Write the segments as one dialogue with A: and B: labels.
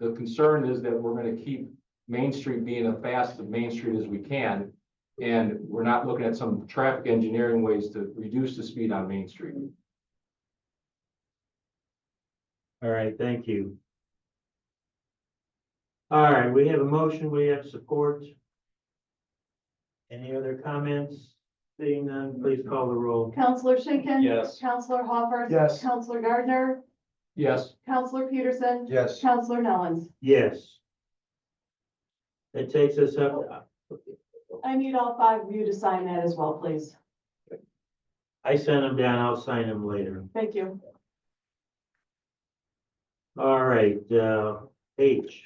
A: the concern is that we're gonna keep Main Street being as fast as Main Street as we can. And we're not looking at some traffic engineering ways to reduce the speed on Main Street.
B: All right, thank you. All right, we have a motion, we have support. Any other comments? Seeing none, please call the roll.
C: Counselor Schinkin.
A: Yes.
C: Counselor Hopper.
D: Yes.
C: Counselor Gardner.
A: Yes.
C: Counselor Peterson.
D: Yes.
C: Counselor Nellens.
B: Yes. That takes us up,
C: I need all five of you to sign that as well, please.
B: I sent them down, I'll sign them later.
C: Thank you.
B: All right, uh, H,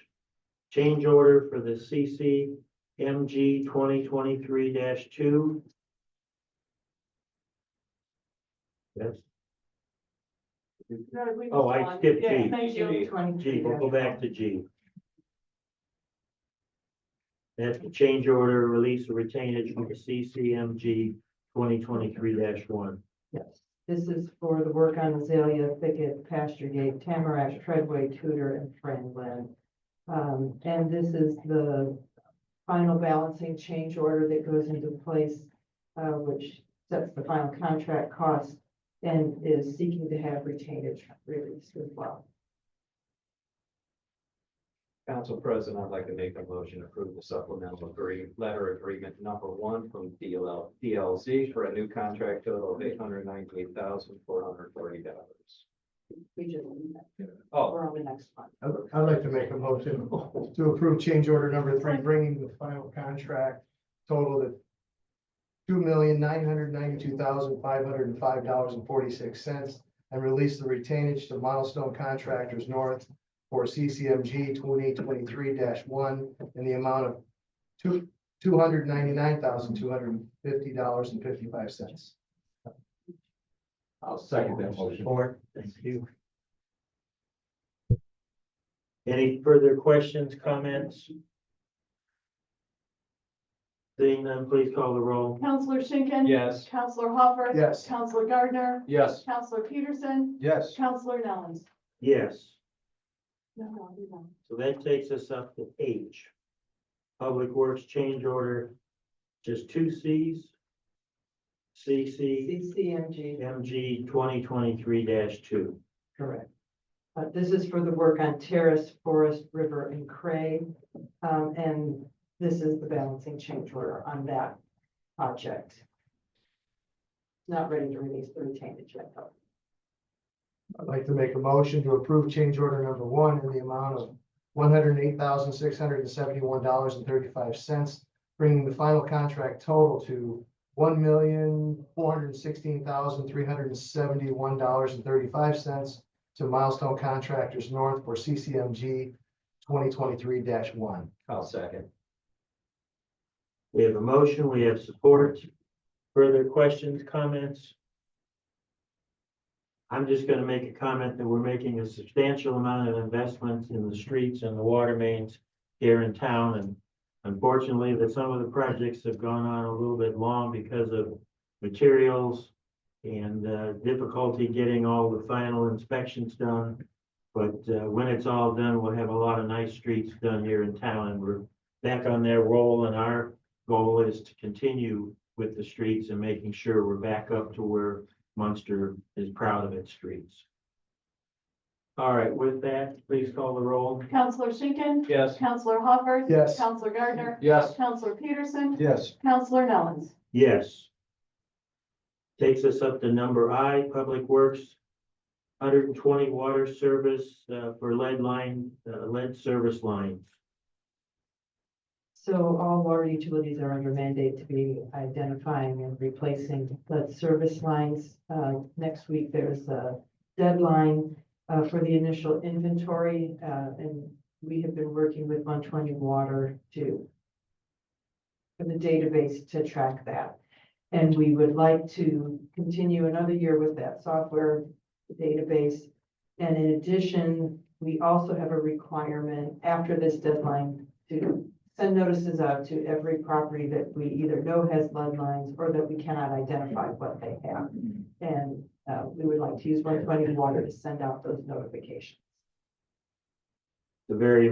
B: change order for the CC MG twenty twenty-three two. Yes,
C: No, we can
B: Oh, I
C: go on.
B: skipped
C: Yeah,
B: G.
C: Thank you.
B: G, we'll go back to G. That's the change order, release of retainage from the CCMG twenty twenty-three one.
E: Yes, this is for the work on Azalea Thicket, Pasture Gate, Tamarack, Treadway, Tudor, and Franklin. Um, and this is the final balancing change order that goes into place, uh, which sets the final contract cost and is seeking to have retainage released as well.
F: Council President, I'd like to make a motion to approve the supplemental agree, letter agreement number one from DLL, DLZ for a new contract total of eight hundred ninety-eight thousand, four hundred forty dollars.
E: We just,
F: Oh,
E: we're on the next one.
D: I'd I'd like to make a motion to approve change order number three, bringing the final contract total to two million nine hundred ninety-two thousand five hundred and five dollars and forty-six cents and release the retainage to Milestone Contractors North for CCMG twenty twenty-three one in the amount of two, two hundred ninety-nine thousand two hundred and fifty dollars and fifty-five cents.
A: I'll second that motion.
B: Support, thank you. Any further questions, comments? Seeing none, please call the roll.
C: Counselor Schinkin.
F: yes.
C: Counselor Hopper.
D: Yes.
C: Counselor Gardner.
A: Yes.
C: Counselor Peterson.
D: Yes.
C: Counselor Nellens.
B: Yes,
C: No, no, you don't.
B: so that takes us up to H. Public Works Change Order, just two Cs. CC.
E: CCMG,
B: MG twenty twenty-three two.
E: correct. Uh, this is for the work on Terrace, Forest, River, and Cray. Um, and this is the balancing change order on that project. Not ready to release the retainage yet, though.
D: I'd like to make a motion to approve change order number one in the amount of one hundred and eight thousand, six hundred and seventy-one dollars and thirty-five cents, bringing the final contract total to one million, four hundred and sixteen thousand, three hundred and seventy-one dollars and thirty-five cents to Milestone Contractors North for CCMG twenty twenty-three one.
F: I'll second.
B: We have a motion, we have support. Further questions, comments? I'm just gonna make a comment that we're making a substantial amount of investments in the streets and the water mains here in town, and unfortunately, that some of the projects have gone on a little bit long because of materials and uh, difficulty getting all the final inspections done. But uh, when it's all done, we'll have a lot of nice streets done here in town, and we're back on their roll, and our goal is to continue with the streets and making sure we're back up to where Munster is proud of its streets. All right, with that, please call the roll.
C: Counselor Schinkin.
F: Yes.
C: Counselor Hopper.
D: Yes.
C: Counselor Gardner.
A: Yes.
C: Counselor Peterson.
D: Yes.
C: Counselor Nellens.
B: Yes. Takes us up to number I, Public Works. Hundred and twenty water service uh, for lead line, uh, lead service lines.
E: So all water utilities are under mandate to be identifying and replacing lead service lines. Uh, next week, there's a deadline, uh, for the initial inventory, uh, and we have been working with one twenty water to for the database to track that. And we would like to continue another year with that software database. And in addition, we also have a requirement after this deadline to send notices out to every property that we either know has lead lines or that we cannot identify what they have. And uh, we would like to use one twenty water to send out those notifications.
B: the very